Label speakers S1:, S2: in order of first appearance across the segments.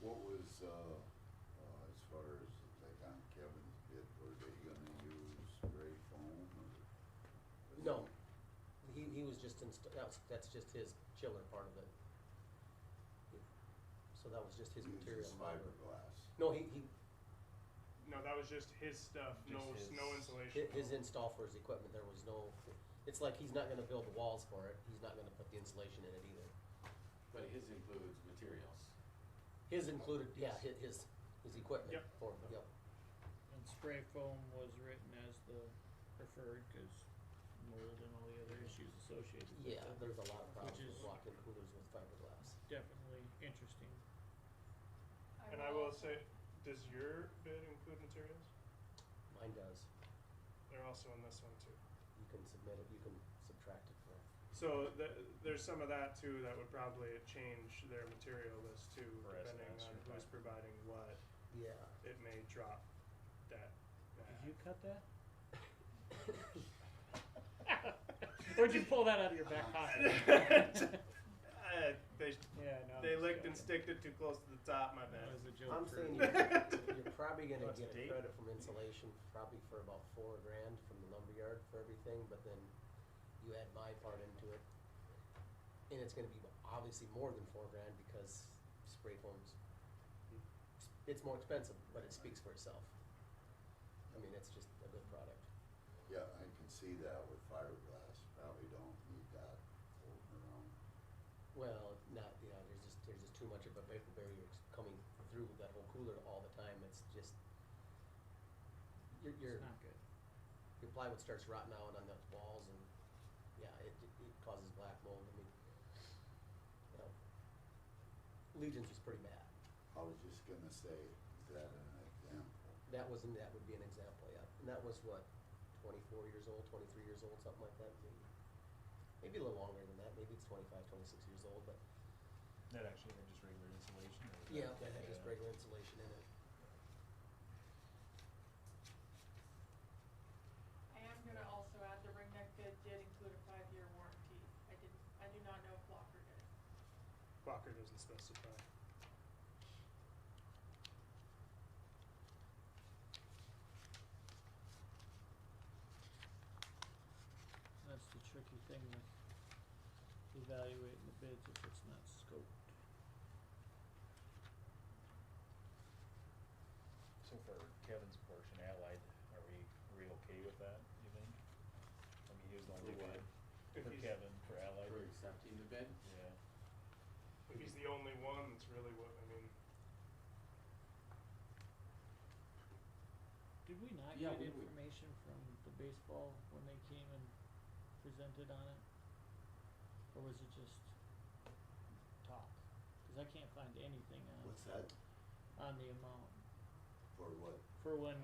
S1: What's, uh, uh, as far as, like on Kevin's bid, were they gonna use spray foam or?
S2: No, he, he was just inst- that's, that's just his chiller part of it. So that was just his
S1: Uses
S2: material fiber.
S1: fiberglass.
S2: No, he, he,
S3: No, that was just his stuff. no
S4: Just his-
S3: no
S2: hi-
S3: insulation.
S2: his install for his equipment, there was no, it's like he's not gonna build the walls for it, he's not gonna put the insulation in it either.
S4: But his includes materials.
S2: His included, yeah, hi- his, his equipment
S3: Yep.
S2: for, yep.
S5: And spray foam was written as the preferred because mold and all the other issues associated with
S2: Yeah,
S5: it.
S2: there's a lot of problems
S5: Which
S2: with
S5: is-
S2: walk-in coolers with fiberglass.
S5: Definitely interesting.
S3: And I will say, does your bid include materials?
S2: Mine does,
S3: They're also in this one too.
S2: you can submit it, you can subtract it from,
S3: So th- there's some of that too that would probably change their material list too,
S4: For
S3: depending
S4: estimates
S3: on
S4: or
S3: who's
S4: that.
S3: providing what.
S2: yeah.
S3: It may drop that. back.
S5: Did you cut that? Where'd you pull that out of your back pocket?
S3: Uh, they
S5: yeah, no.
S3: they
S5: I'm
S3: licked and sticked
S5: joking.
S3: it too close to the top. My
S5: That was
S3: bad.
S5: a joke.
S2: I'm
S5: for-
S2: saying you're, you're probably gonna
S3: That's
S2: get a
S3: deep.
S2: credit from insulation, probably for about four grand from the lumberyard for everything, but then you add my part into it. And it's gonna be obviously more than four grand because spray foams, it's more expensive, but it speaks for itself. I mean, it's just a good product.
S1: Yeah, I can see that with fiberglass, probably don't need that floating around.
S2: Well, not, you know, there's just, there's just too much of a vapor barrier ex- coming through that whole cooler all the time, it's just, you're, you're.
S5: It's not good.
S2: your plywood starts rotting out on the walls and yeah, it, it it causes black mold. I mean, you know, Legion's was pretty bad.
S1: I was just gonna say, is that an example?
S2: That was, that would be an example, yeah. And that was what, twenty-four years old, twenty-three years old, something like that, maybe. Maybe a little longer than that, maybe it's 25, 26 years old, but
S6: That actually had just regular insulation. or was
S2: yeah,
S6: that-
S2: that had just
S6: Yeah.
S2: regular insulation in it.
S7: I am gonna also add the ring neck bid did include a five-year warranty. I didn't, I do not know if Walker did.
S3: Walker doesn't specify.
S5: That's the tricky thing with evaluating the bids if it's not scoped.
S6: So for Kevin's portion, Allied, are we, are we okay with that, you think? I mean, he was the
S4: For
S6: only
S4: what?
S6: bid.
S3: If
S6: For
S3: he's-
S6: Kevin, for Allied,
S4: For accepting the bid?
S6: yeah.
S3: If he's the only one, it's really what I mean.
S5: Did we not
S4: Yeah, we-
S5: get
S4: we-
S5: information from the baseball when they came and presented on it? Or was it just talk? Cause I can't find anything on,
S1: What's that?
S5: on the amount.
S1: For what?
S5: For when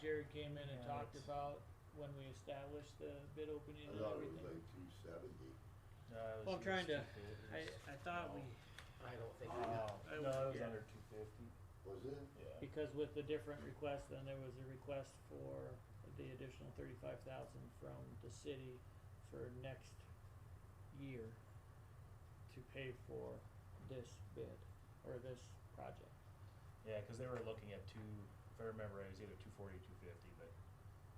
S5: Jared came in and
S6: Yeah,
S5: talked
S6: it's-
S5: about when we established the bid opening
S1: I
S5: and
S1: thought it was
S5: everything.
S1: like two seventy.
S6: No, it was-
S5: Well, I'm
S6: it was
S5: trying to-
S6: 250.
S5: I, I thought
S6: No.
S5: we,
S2: I don't think, we-
S4: Uh,
S6: Oh,
S5: I-
S6: no, it was
S5: yeah.
S6: under two fifty,
S1: Was it?
S6: yeah.
S5: because with the different requests, then there was a request for the additional thirty-five thousand from the city for next year to pay for this bid or this project.
S6: Yeah, cause they were looking at two, if I remember, right, it was either two forty, two fifty, but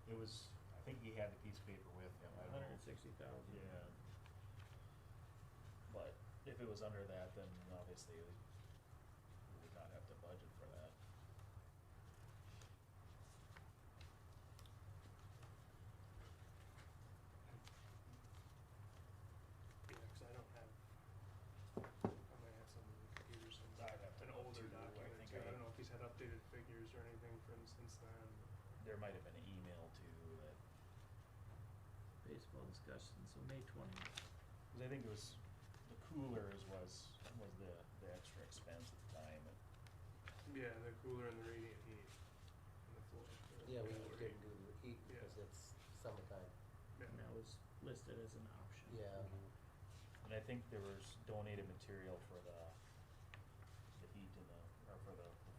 S6: it was, I think he had the piece of paper with him, I don't know.
S5: Hundred and sixty thousand.
S6: Yeah. But if it was under that, then obviously we we would not have to budget for that.
S3: Yeah, 'cause I don't have. I might have some of the computers and
S6: I'd have to
S3: an
S6: look
S3: older
S6: too. I
S3: document
S6: think
S3: too.
S6: I-
S3: I don't know if he's had updated figures or anything from since then.
S6: There might have been an email too that,
S5: Baseball discussion, so May twentieth.
S6: cause I think it was, the coolers was, was the, the extra expense at the time. and
S3: Yeah, the cooler and the radiant heat and the floor. the
S2: yeah, we
S3: floor heat.
S2: didn't do the heat
S3: Yeah.
S2: because it's summertime,
S3: Yeah.
S5: And that was listed as an option.
S2: yeah.
S6: And I think there was donated material for the